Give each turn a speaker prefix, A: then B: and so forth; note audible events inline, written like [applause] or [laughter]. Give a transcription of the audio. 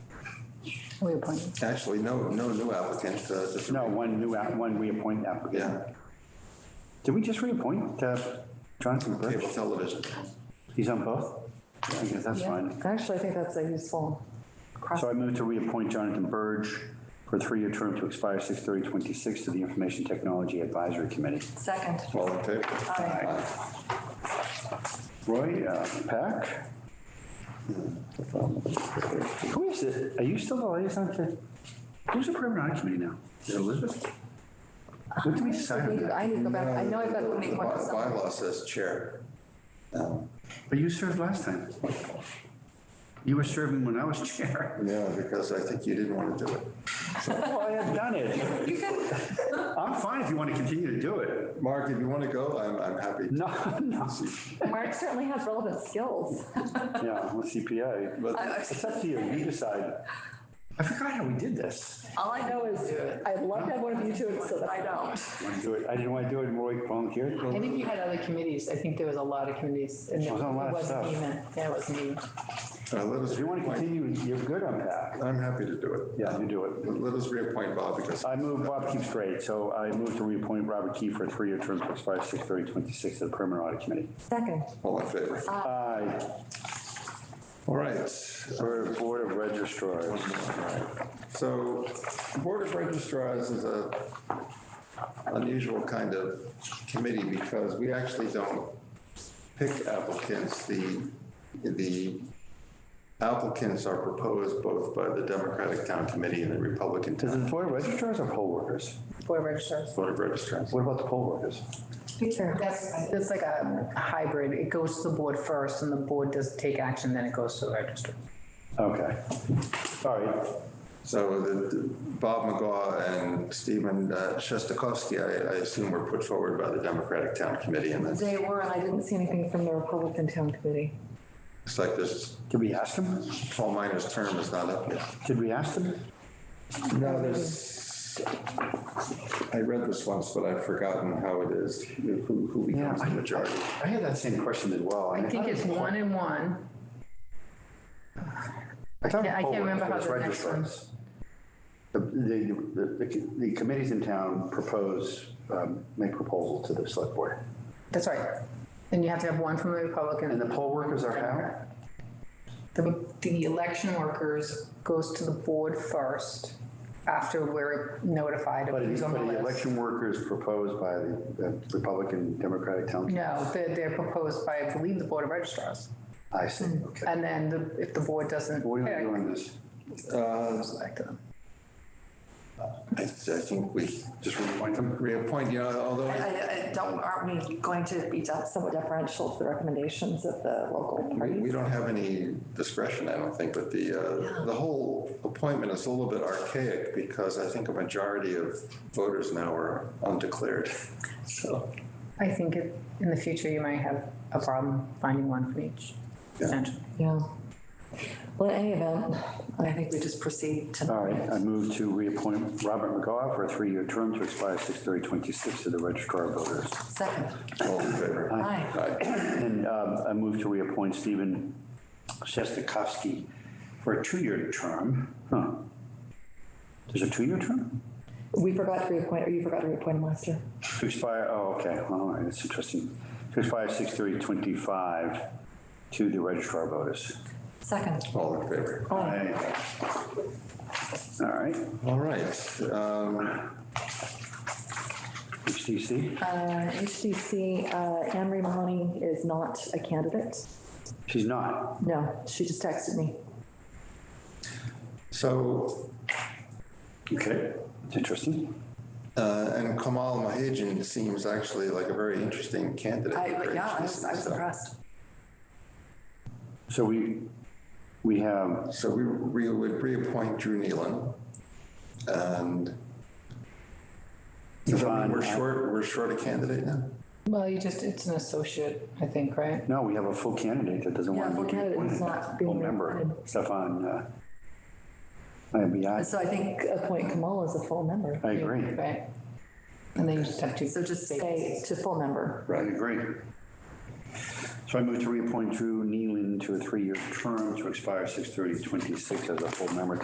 A: we appointed.
B: Actually, no, no new applicant, uh, just.
C: No, one new, app- one reappoint applicant.
B: Yeah,
C: Did we just reappoint uh, Jonathan
B: cable
C: Birch?
B: television.
C: He's on both? I guess that's
A: Yeah.
C: fine.
A: Actually, I think that's a useful cross.
C: So I move to reappoint Jonathan Burge for a three-year term to expire 6/30/26 to the Information Technology Advisory Committee.
A: Second.
B: All in favor?
A: Aye.
C: Roy uh, Pack? Who is it? Are you still the liaison to, who's the Permanent Audit Committee now? Is it Elizabeth? What did we decide on that?
A: I need to go back, I know I've got to
B: The
A: make one.
B: by-
A: so-
B: bylaw says chair.
C: But you served last time. You were serving when I was [laughs] chair.
B: Yeah, because I think you didn't want to do it.
C: Well, Oh, I had done it.
A: You can,
C: I'm fine if you want to continue to do it.
B: Mark, if you want to go, I'm, I'm happy.
C: No, no.
A: Mark certainly has relevant [laughs] skills.
C: Yeah, I'm a CPA.
B: But
C: It's up to you. You decide. I forgot how we did this.
A: All I know is I'd love to have one of you do it so that I don't.
C: Want to do it? I didn't want to do it. Roy volunteered.
D: I think you had other committees. I think there was a lot of committees. and
C: There was a lot of
D: it wasn't
C: stuff.
D: me then. Yeah, it wasn't me.
B: uh, let us
C: If you want to
B: reappoint.
C: continue, you're good on that.
B: I'm happy to do it.
C: Yeah, you do it.
B: Let us reappoint Bob because
C: I move, Bob keeps straight, so I move to reappoint Robert Key for a three-year term to expire six thirty twenty-six to the Permanent Audit Committee.
A: Second.
B: all in favor.
C: Aye.
B: All right.
C: For Board of Registrars.
B: So Board of Registrars is a unusual kind of committee because we actually don't pick applicants. The, the applicants are proposed both by the Democratic Town Committee and the Republican
C: Is
B: Town
C: it Board of Registrars or poll workers?
D: Board registrars.
B: Board of Registrars.
C: What about the poll workers?
D: That's, that's like a hybrid. It goes to the board first and the board does take action, then it goes to the registrar.
C: Okay. All right.
B: So the- Bob McGaw and Stephen uh, Shostakowski, I I assume were put forward by the Democratic Town Committee. And it's
A: They were, and I didn't see anything from the Republican Town Committee.
B: like this,
C: Did we ask them?
B: Paul Minor's term is not up yet.
C: Did we ask them?
B: No, there's, I read this once, but I've forgotten how it is, who who becomes the majority.
C: I had that same question as well.
D: I think it's one and one.
C: I thought it was
D: I can't
C: poll
D: remember
C: workers,
D: how
C: but it's
D: the next one-
C: registrars. The, the- the, the committees in town propose, um, make proposal to the select board.
D: That's right. And you have to have one from the Republican.
C: And the poll workers are how?
D: The, the election workers goes to the board first after we're notified of
C: But it's
D: who's on
C: but
D: the
C: the
D: list.
C: election workers proposed by the the Republican Democratic Town.
D: No, they're, they're proposed by, I believe, the board of registrars.
C: I see,
D: Hmm.
C: okay.
D: And then the- if the board doesn't
C: What are you
D: pick,
C: doing this?
D: it goes back to them.
B: I I think we
C: Just reappoint them?
B: reappoint, you know, although,
A: I, I don't, aren't we going to be somewhat deferential to the recommendations of the local
B: We-
A: parties?
B: We don't have any discretion, I don't think, but the, uh, the whole appointment is a little bit archaic because I think a majority of voters now are undeclared. So,
D: I think it, in the future, you might have a problem finding one from each, potentially.
A: Yeah. Well, in any event, I think we just proceed to.
C: All right, I move to reappoint Robert McGough for a three-year term to expire 6/30/26 to the Registrar of Voters.
A: Second.
B: all in favor?
A: Aye.
B: Aye.
C: And um, I move to reappoint Stephen Shestakowski for a two-year term. Huh. There's a two-year term?
A: We forgot to reappoint, or you forgot to reappoint him last year.
C: To expire, oh, okay, all right, that's interesting. To expire 6/30/25 to the Registrar of Voters.
A: Second.
B: All in favor?
C: Aye. All right,
B: All right, um,
C: HTC,
A: Uh, HDC, uh, Anne Marie Mahoney is not a candidate.
C: she's not.
A: No, she just texted me.
B: so
C: Okay. It's interesting.
B: Uh, And Kamal Mahajan seems actually like a very interesting candidate.
A: I, but
B: Very
A: yeah, I was, I was
B: interesting.
A: impressed.
C: So we, we have,
B: So we we would reappoint Drew Nealon. And
C: Yvonne-
B: we're short, we're short a candidate now?
D: Well, you just, it's an associate, I think, right?
C: no, we have a full candidate that doesn't
A: Yeah,
C: want to
A: full
C: be
A: candidate
C: reappointed.
A: is not being
C: Full member,
A: reappointed.
C: Stefan uh, Biagi.
A: So I think appoint Kamala as a full member.
C: I agree.
D: Right? And then you just have to.
A: So just say to full member.
C: I agree. So I move to reappoint Drew Nealon to a three-year term to expire 6/30/26 as a full member